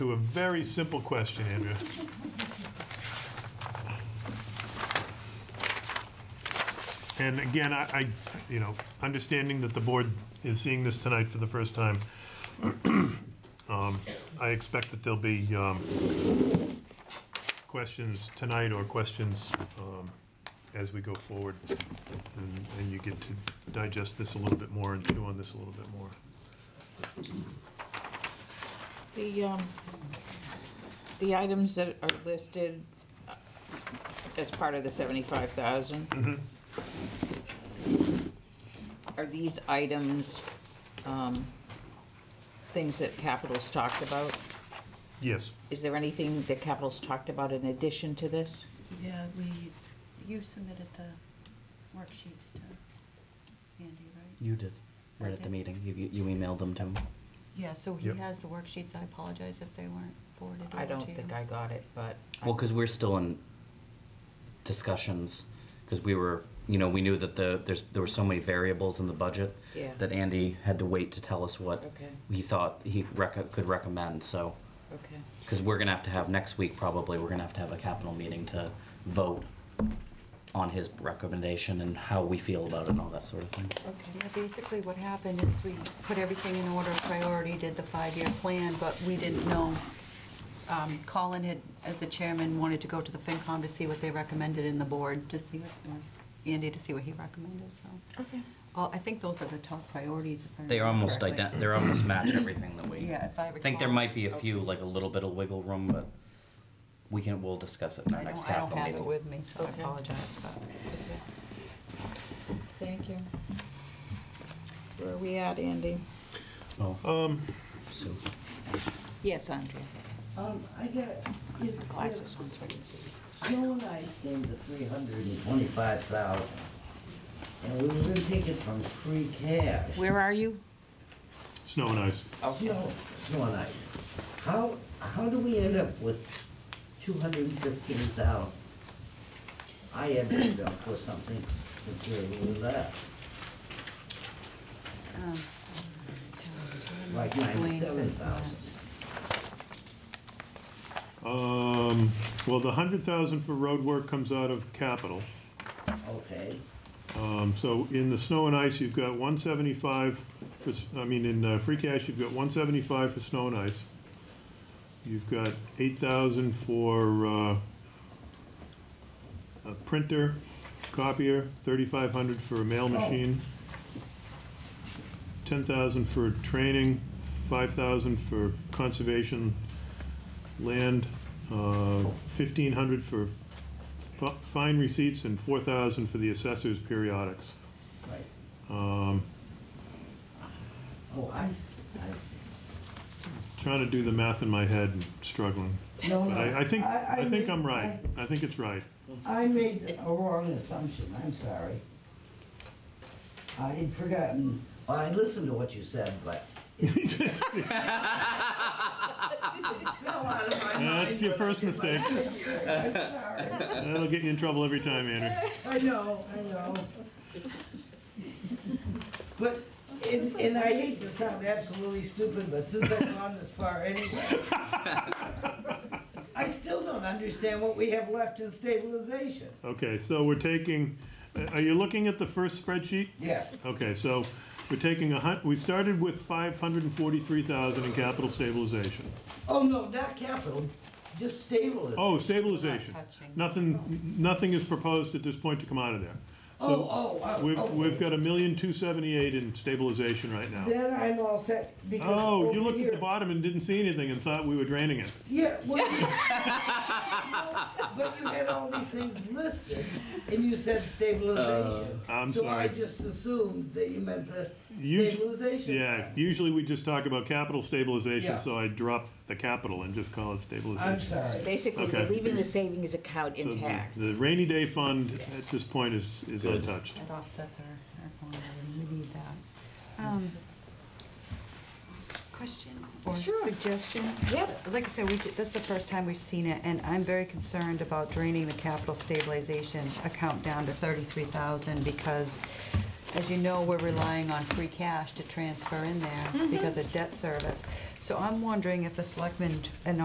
to a very simple question, Andrea. And again, I, I, you know, understanding that the board is seeing this tonight for the first time, um, I expect that there'll be um, questions tonight or questions um, as we go forward, and and you get to digest this a little bit more and chew on this a little bit more. The, um, the items that are listed uh, as part of the seventy-five thousand? Are these items, um, things that Capital's talked about? Yes, Is there anything that Capital's talked about in addition to this? Yeah, we, you submitted the worksheets to Andy, right? You did, I right at the did. meeting. You, you emailed them to him. Yeah, so he Yep. has the worksheets. I apologize if they weren't forwarded over to you. I don't think I got it, but. I- Well, because we're still in discussions, because we were, you know, we knew that the, there's, there were so many variables in the budget Yeah. that Andy had to wait to tell us what Okay. he thought he rec- could recommend, so, Okay, because we're gonna have to have, next week probably, we're gonna have to have a capital meeting to vote on his recommendation and how we feel about it and all that sort of thing. Yeah, okay. basically what happened is we put everything in order of priority, did the five-year plan, but we didn't know. um, Colin had, as the chairman, wanted to go to the FinCom to see what they recommended in the board, to see, what or Andy to see what he recommended, so. Okay. Well, I think those are the top priorities. if I They remember almost correctly. ident, they're almost match everything that we. Yeah, if I I think there recall. might be a few, like a little bit of wiggle room, but we can, we'll discuss it in our I next don't, I don't capital have it meeting. with me, so I Okay. apologize, but. Thank you. Where are we at, Andy? Oh. So, Yes, Andrea. Um, I got, if, Glasses on so I can see. if Joe and I came to three hundred and twenty-five thousand, and we were gonna take it from free cash. Where are you? snow and ice. Okay. Joe, Joe and I, how, how do we end up with two hundred and fifteen thousand? I ended up with something comparable to that, Um, like Blaine said ninety-seven thousand. Um, Well, the 100,000 for road work comes out of capital. Okay, Um, So in the snow and ice, you've got 175, for s- I mean, in uh, free cash, you've got 175 for snow and ice. You've got 8,000 for uh, a printer, copier, 3,500 for a mail machine, 10,000 for training, 5,000 for conservation land, uh, 1,500 for fi- fine receipts, and 4,000 for the assessor's periodics. right, Um, oh, I see, I see. Trying to do the math in my head and struggling. No, But no, I I think, I- I I think mean, I'm right. I think it's right. I made a wrong assumption, I'm sorry. I had forgotten. I listened to what you said, but. That's your first mistake. I'm sorry. That'll get you in trouble every time, Andrew. I know, I know. But, and, and I hate to sound absolutely stupid, but since I've gone this far anyway, I still don't understand what we have left in stabilization. Okay, so we're taking, uh, are you looking at the first spreadsheet? Yes, Okay, so we're taking a hun, we started with 543,000 in capital stabilization. oh no, not capital, just stabilization. Oh, stabilization. Not touching. Nothing, nothing is proposed at this point to come out of there. So Oh, oh, oh, We've, okay. we've got a million two seventy-eight in stabilization right now. Then I'm all set because. Oh, you over looked at here- the bottom and didn't see anything and thought we were draining it. Yeah, well. you- But you had all these things listed and you said stabilization. Uh, I'm So I sorry. just assumed that you meant the Usu- stabilization. Yeah, usually we just talk about capital Yeah. stabilization, so I drop the capital and just call it stabilization. I'm sorry. Basically, we're Okay. leaving the savings account So the- intact. The rainy day fund at this point is, is Good. untouched. It offsets our, our phone bill, and we need that. Um, Question or Sure. suggestion? Yep. Like I said, we, ju- this is the first time we've seen it, and I'm very concerned about draining the capital stabilization account down to thirty-three thousand because As you know, we're relying on free Mm-hmm. cash to transfer in there because of debt service. So I'm wondering if the selectmen and